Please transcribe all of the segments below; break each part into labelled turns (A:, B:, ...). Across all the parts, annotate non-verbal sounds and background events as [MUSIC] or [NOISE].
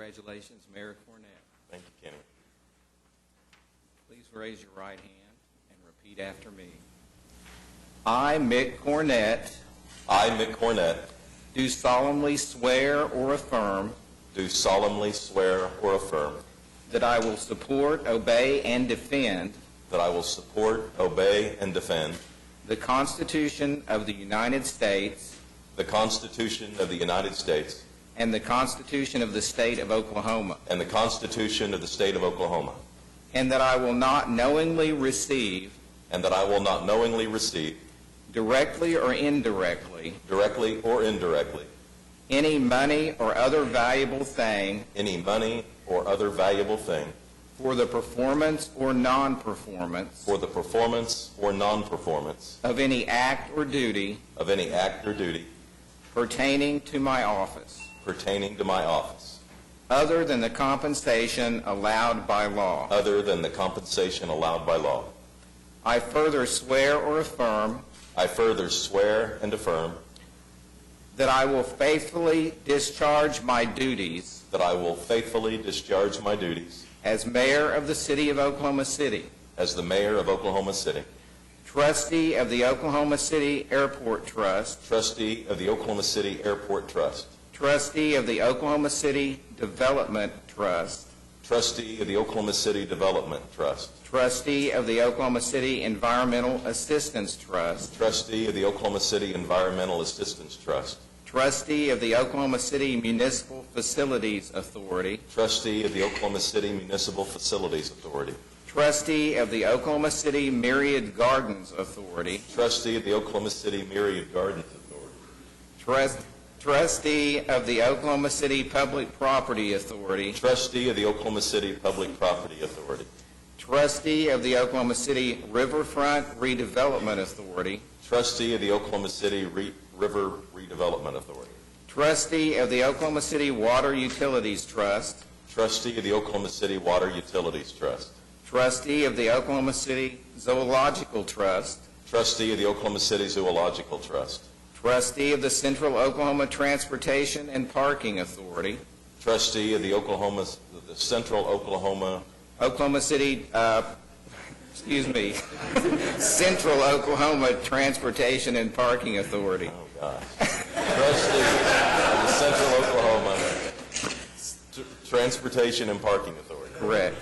A: Congratulations, Mayor Cornell.
B: Thank you, Kenny.
A: Please raise your right hand and repeat after me. I, Mick Cornett,
B: I, Mick Cornett,
A: do solemnly swear or affirm
B: do solemnly swear or affirm
A: that I will support, obey, and defend
B: that I will support, obey, and defend
A: the Constitution of the United States
B: the Constitution of the United States
A: and the Constitution of the State of Oklahoma,
B: and the Constitution of the State of Oklahoma,
A: and that I will not knowingly receive,
B: and that I will not knowingly receive,
A: directly or indirectly,
B: directly or indirectly,
A: any money or other valuable thing
B: any money or other valuable thing
A: for the performance or non-performance
B: for the performance or non-performance
A: of any act or duty
B: of any act or duty
A: pertaining to my office,
B: pertaining to my office,
A: other than the compensation allowed by law.
B: other than the compensation allowed by law.
A: I further swear or affirm
B: I further swear and affirm
A: that I will faithfully discharge my duties
B: That I will faithfully discharge my duties
A: as mayor of the city of Oklahoma City,
B: as the mayor of Oklahoma City,
A: trustee of the Oklahoma City Airport Trust,
B: trustee of the Oklahoma City Airport Trust,
A: trustee of the Oklahoma City Development Trust,
B: trustee of the Oklahoma City Development Trust,
A: trustee of the Oklahoma City Environmental Assistance Trust,
B: trustee of the Oklahoma City Environmental Assistance Trust,
A: trustee of the Oklahoma City Municipal Facilities Authority,
B: trustee of the Oklahoma City Municipal Facilities Authority,
A: trustee of the Oklahoma City Myriad Gardens Authority,
B: trustee of the Oklahoma City Myriad Gardens Authority,
A: trust- trustee of the Oklahoma City Public Property Authority,
B: trustee of the Oklahoma City Public Property Authority,
A: trustee of the Oklahoma City Riverfront Redevelopment Authority,
B: trustee of the Oklahoma City Re- River Redevelopment Authority,
A: trustee of the Oklahoma City Water Utilities Trust,
B: trustee of the Oklahoma City Water Utilities Trust,
A: trustee of the Oklahoma City Zoological Trust,
B: trustee of the Oklahoma City Zoological Trust,
A: trustee of the Central Oklahoma Transportation and Parking Authority,
B: trustee of the Oklahoma, the Central Oklahoma,
A: Oklahoma City, uh, excuse me, [LAUGHS] Central Oklahoma Transportation and Parking Authority,
B: oh gosh, trustee of the Central Oklahoma Tr- Transportation and Parking Authority,
A: correct.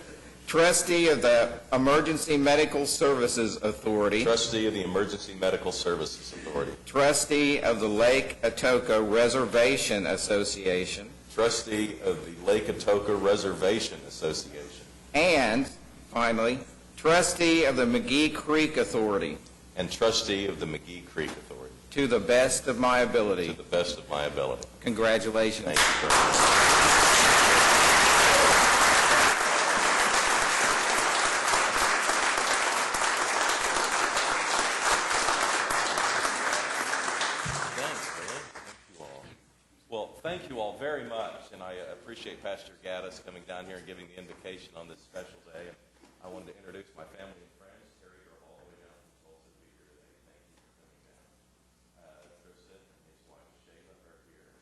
A: Trustee of the Emergency Medical Services Authority,
B: trustee of the Emergency Medical Services Authority,
A: trustee of the Lake Atoka Reservation Association,
B: trustee of the Lake Atoka Reservation Association,
A: and, finally, trustee of the McGee Creek Authority,
B: and trustee of the McGee Creek Authority,
A: to the best of my
B: to
A: ability.
B: the best of my ability.
A: Congratulations.
B: Thank you very much. Thanks, man. Thank you all. Well, thank you all very much, and I uh, appreciate Pastor Gaddis coming down here and giving the invocation on this special day. And I wanted to introduce my family and friends, Terry, you're all the way down from Tulsa to be here today. Thank you for coming down. Uh, Tristan and his wife Shayla are here.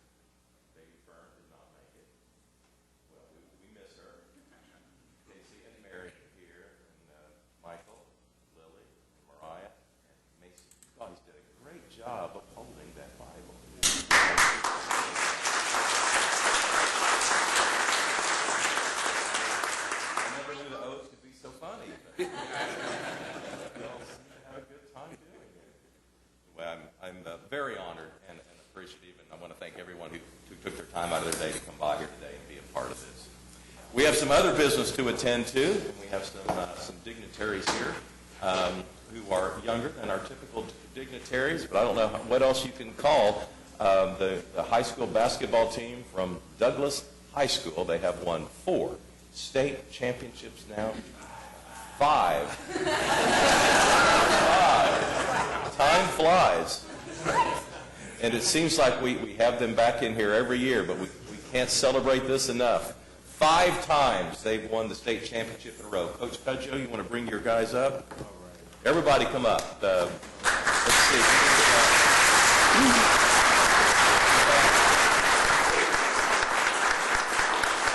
B: Baby Fern did not make it. Well, we, we miss her. Casey and Mary are here, and uh, Michael, Lily, and Mariah, and Macy. You guys did a great job upholding that Bible. I never knew the oath could be so funny. but [LAUGHS] We all seem to have a good time doing it. Well, I'm, I'm uh, very honored and, and appreciative, and I want to thank everyone who, who took their time out of their day to come by here today and be a part of this. We have some other business to attend to, and we have some, uh, some dignitaries here um, who are younger than our typical dignitaries, but I don't know what else you can call um, the, the high school basketball team from Douglas High School. They have won four state championships now, five Time flies. And it seems like we, we have them back in here every year, but we, we can't celebrate this enough. Five times they've won the state championship in a row. Coach Cudjoe, you want to bring your guys up? Everybody come up. Uh, let's see.